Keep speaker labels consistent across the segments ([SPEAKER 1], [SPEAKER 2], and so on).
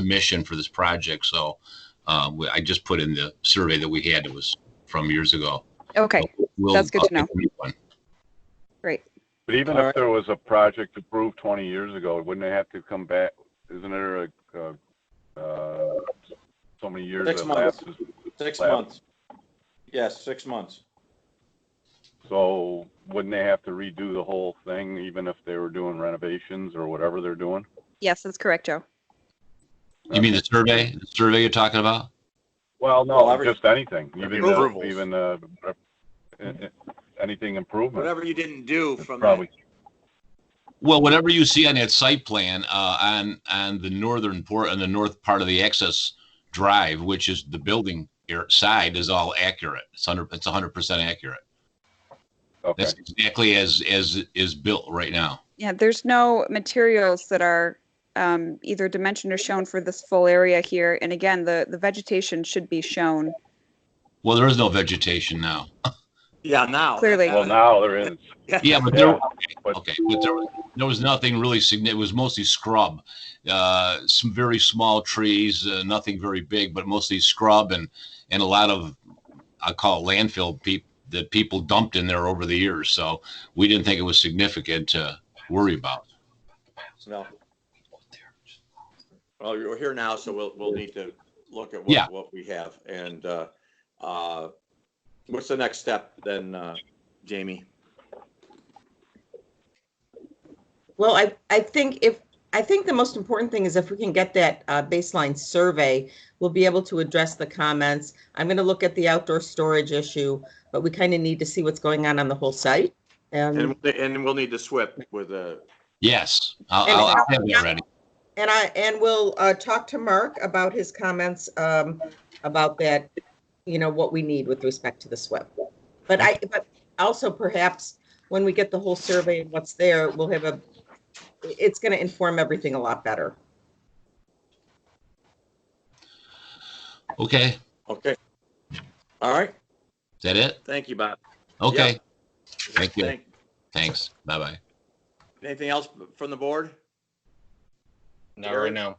[SPEAKER 1] submission for this project. So uh, we- I just put in the survey that we had, it was from years ago.
[SPEAKER 2] Okay,
[SPEAKER 1] We'll-
[SPEAKER 2] That's good to
[SPEAKER 1] I'll
[SPEAKER 2] know.
[SPEAKER 1] give you one.
[SPEAKER 2] great.
[SPEAKER 3] But even
[SPEAKER 4] All
[SPEAKER 3] if
[SPEAKER 4] right.
[SPEAKER 3] there was a project approved 20 years ago, wouldn't they have to come back? Isn't there a, uh, uh, so many years
[SPEAKER 4] Six
[SPEAKER 3] that
[SPEAKER 4] months.
[SPEAKER 3] lapses?
[SPEAKER 4] Six
[SPEAKER 3] Lab.
[SPEAKER 4] months. Yes, six months.
[SPEAKER 3] So wouldn't they have to redo the whole thing, even if they were doing renovations or whatever they're doing?
[SPEAKER 2] Yes, that's correct, Joe.
[SPEAKER 1] You mean the survey, the survey you're talking about?
[SPEAKER 3] Well,
[SPEAKER 4] Well,
[SPEAKER 3] no,
[SPEAKER 4] every-
[SPEAKER 3] just anything, even, the-
[SPEAKER 5] Approvals.
[SPEAKER 3] even, uh, uh, anything improvement.
[SPEAKER 5] Whatever you didn't do from that
[SPEAKER 3] Probably,
[SPEAKER 1] Well, whatever you see on that site plan, uh, on, on the northern port, on the north part of the access drive, which is the building here side is all accurate. It's hundred, it's hundred percent accurate.
[SPEAKER 3] okay.
[SPEAKER 1] That's exactly as, as is built right now.
[SPEAKER 2] Yeah, there's no materials that are um, either dimensioned or shown for this full area here. And again, the, the vegetation should be shown.
[SPEAKER 1] Well, there is no vegetation now.
[SPEAKER 5] yeah now
[SPEAKER 2] Clearly.
[SPEAKER 3] Well, now there is,
[SPEAKER 1] Yeah, but there,
[SPEAKER 3] but
[SPEAKER 1] Okay, but there, there was nothing really significant. It was mostly scrub, uh, some very small trees, uh, nothing very big, but mostly scrub and and a lot of I call it landfill peop that people dumped in there over the years. So we didn't think it was significant to worry about.
[SPEAKER 4] No. Well, you're here now, so we'll, we'll need to look at
[SPEAKER 1] Yeah.
[SPEAKER 4] what, what we have. And, uh, uh, what's the next step then, uh, Jamie?
[SPEAKER 6] Well, I, I think if, I think the most important thing is if we can get that uh, baseline survey, we'll be able to address the comments. I'm going to look at the outdoor storage issue, but we kind of need to see what's going on on the whole site.
[SPEAKER 4] And,
[SPEAKER 6] Um,
[SPEAKER 4] and we'll need to SWIP with uh, a,
[SPEAKER 1] Yes, I'll, I'll, I'll have that ready.
[SPEAKER 6] And I, and we'll uh, talk to Mark about his comments um, about that, you know, what we need with respect to the SWIP. But I, but also perhaps when we get the whole survey and what's there, we'll have a, it's going to inform everything a lot better.
[SPEAKER 1] Okay, is
[SPEAKER 4] okay. All right.
[SPEAKER 1] that it?
[SPEAKER 4] Thank you, Bob.
[SPEAKER 1] Okay,
[SPEAKER 4] Yeah.
[SPEAKER 1] Thank you.
[SPEAKER 4] Thank-
[SPEAKER 1] thanks. Bye bye.
[SPEAKER 4] Anything else from the board?
[SPEAKER 7] Not right now.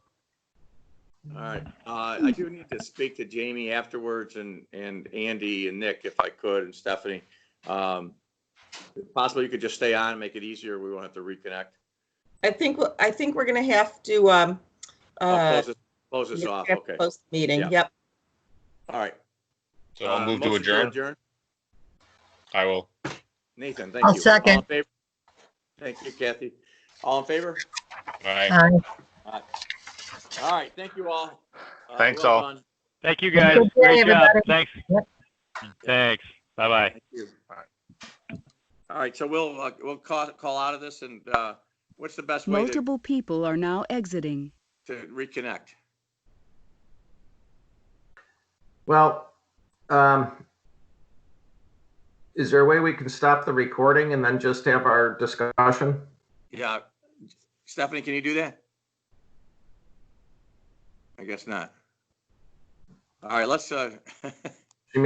[SPEAKER 4] All right, uh, I do need to speak to Jamie afterwards and, and Andy and Nick if I could and Stephanie. Um, if Possible you could just stay on and make it easier. We won't have to reconnect.
[SPEAKER 6] I think, we'll- I think we're going to have to, um,
[SPEAKER 4] I'll
[SPEAKER 6] uh,
[SPEAKER 4] close this- Close this
[SPEAKER 6] yeah,
[SPEAKER 4] off,
[SPEAKER 6] we have to
[SPEAKER 4] okay.
[SPEAKER 6] Close the meeting,
[SPEAKER 4] Yeah.
[SPEAKER 6] yep.
[SPEAKER 4] All right.
[SPEAKER 7] So I'll
[SPEAKER 4] Uh,
[SPEAKER 7] move to
[SPEAKER 4] motion
[SPEAKER 7] adjourn. I will.
[SPEAKER 4] Nathan, thank you.
[SPEAKER 8] I'll second.
[SPEAKER 4] All in favor? Thank you, Kathy. All in favor?
[SPEAKER 7] Aye.
[SPEAKER 8] Aye.
[SPEAKER 4] Aye. All right, thank you all. Uh,
[SPEAKER 7] Thanks,
[SPEAKER 4] well
[SPEAKER 7] all.
[SPEAKER 4] done.
[SPEAKER 9] Thank you
[SPEAKER 8] Have
[SPEAKER 9] guys.
[SPEAKER 8] a good day,
[SPEAKER 9] Great job.
[SPEAKER 8] everybody.
[SPEAKER 9] Thanks.
[SPEAKER 8] Yep.
[SPEAKER 9] Thanks. Bye-bye.
[SPEAKER 4] Thank you. All right, so we'll, uh, we'll call, call out of this and, uh, what's the best way to,
[SPEAKER 10] Multiple people are now exiting.
[SPEAKER 4] to reconnect?
[SPEAKER 11] Well, um, is there a way we can stop the recording and then just have our discussion?
[SPEAKER 4] Yeah. Stephanie, can you do that? I guess not. All right, let's, uh,